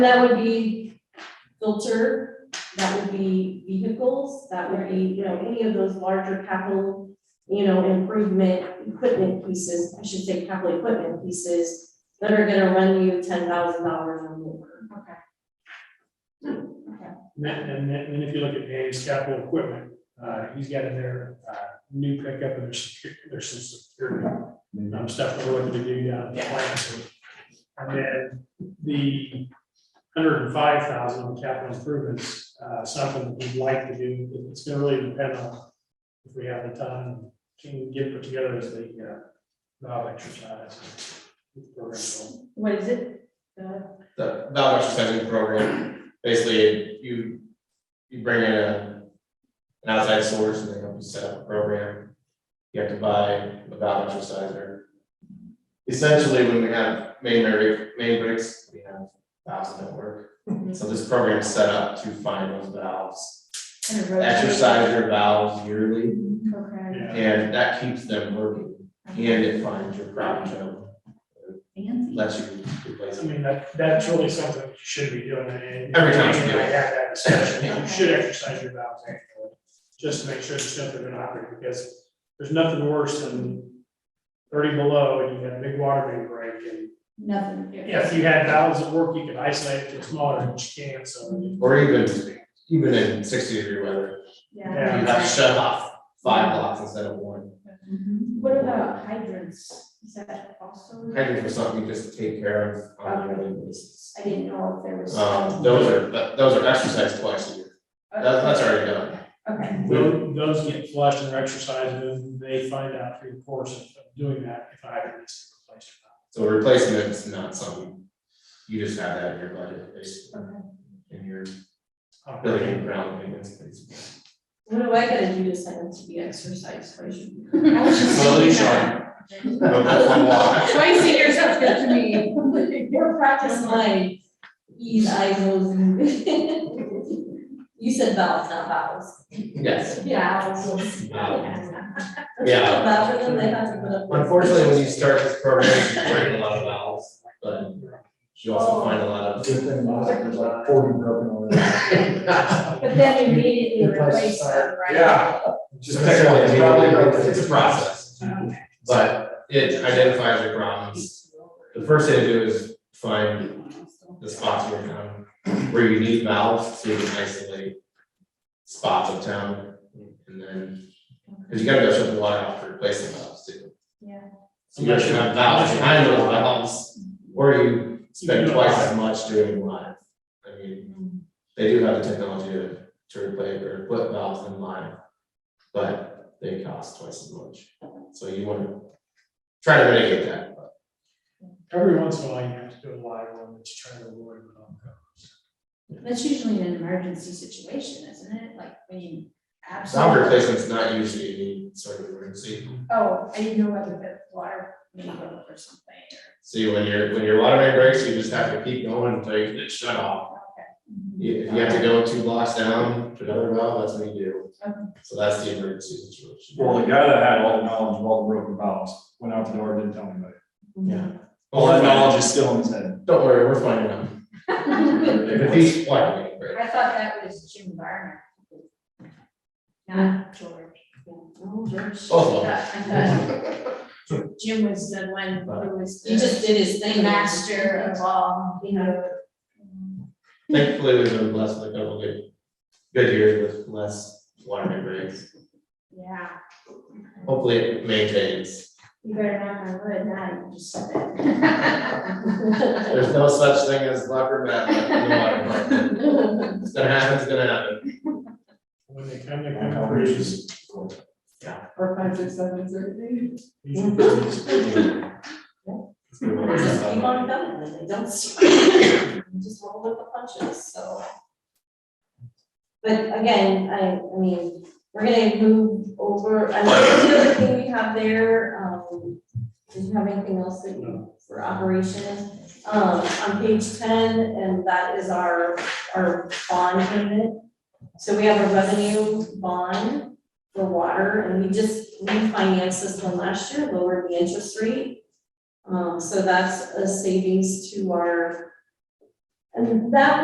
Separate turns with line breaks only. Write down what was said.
That would be filter, that would be vehicles, that would be, you know, any of those larger capital, you know, improvement equipment pieces, I should say capital equipment pieces that are gonna run you ten thousand dollars or more.
And then, and then, and if you look at Dave's capital equipment, uh, he's got in there, uh, new pickup and there's, secu- there's some security, um, stuff that we're looking to do down at the plant. So, And then the hundred and five thousand capital improvements, uh, something we'd like to do, it's gonna really depend on if we have the time, can we get put together as the, uh, Bob exercise. program goal.
What is it?
the valve exercising program, basically, you, you bring in a, an outside source and they help you set up a program. You have to buy a valve exerciser. Essentially, when we have main brick, main bricks, we have valves that work. So this program is set up to find those valves, exercise your valves yearly,
Okay.
Yeah.
and that keeps them working. And it finds your crop job,
Fancy.
lets you replace
I
them.
mean, that, that's really something you should be doing, and.
Every time you do it.
I had that discussion, you should exercise your valves annually, just to make sure the stuff they're not operating, because there's nothing worse than thirty below, and you have a big water main break, and
Nothing.
if you had valves at work, you could isolate it to smaller, but you can't, so.
Or even, even in sixty degree weather,
Yeah.
Yeah.
You have to shut off five blocks instead of one.
Mhm.
What about hydrants? Is that also?
Hydrants are something you just take care of on a yearly basis.
I didn't know if there was.
Um, those are, th- those are exercised twice a year. That, that's already done.
Okay.
Those, those get flushed and they're exercised, and they find out through the course of doing that, if I had this replaced or not.
So replacement is not something, you just have that in your budget, basically. In your building and ground maintenance, basically.
What do I gotta do to sign up to be exercise version?
I was just
Slowly,
thinking
Sean.
that.
Go for one walk.
Twice a year sounds good to me.
More practice my E's, I's, O's, and- You said vowels, not vowels.
Yes.
Vowels.
Vowels. Yeah.
Vowels, and then they have to put up. with-
Unfortunately, when you start this program, you break a lot of valves, but you also find a lot of.
Good thing my there's like forty broken already.
But then immediately replace them, right?
Yeah. Just technically, it's probably, it's a process. But it identifies your problems. The first thing to do is find the spots in your town where you need valves, so you can isolate spots of town. And then, because you gotta go shut the water off to replace the valves too.
Yeah.
So you gotta have valves behind those valves, or you spend twice as much doing live. I mean, they do have the technology to, to replace or put valves in line, but they cost twice as much. So you wanna try to mitigate that, but
Every once in a while, you have to do a live one, but you try to avoid it. when it comes.
That's usually an emergency situation, isn't it? Like when you
valve
absolutely.
replacement's not usually any sort of emergency.
Oh, I didn't know whether the water may go or something
See, when your, when your water main breaks, you just have to keep going until you get it shut
or,
off.
okay.
You- If you have to go two blocks down to another valve, that's what you do.
Okay.
So that's the emergency situation.
Well, the guy that had all the knowledge of all the broken valves went out the door, and didn't tell anybody.
Yeah.
All that knowledge is still in his head.
Don't worry, we're finding out. If he's water main break.
I thought that was Jim Varner. Not George.
Oh, George.
Oh,
I thought Jim was the one who was
He
the
just did his
the
thing.
master of all, you know.
thankfully, we've been blessed with a couple good, good years with less water main breaks.
Yeah,
Hopefully it maintains.
you better knock on wood, now you just said it.
There's no such thing as luck or bad luck in the water department. It's gonna happen, it's gonna happen.
When they come, they come pretty
Or five, six, seven, thirty.
easy.
Just keep on going, and they don't stop. You Just roll with the punches, so. But again, I, I mean, we're gonna move over, I mean, the other thing we have there, um, did you have anything else that you, for operations? Um, on page ten, and that is our, our bond payment. So we have a revenue bond for water, and we just refinanced this one last year, lowered the interest rate. Um, so that's a savings to our And that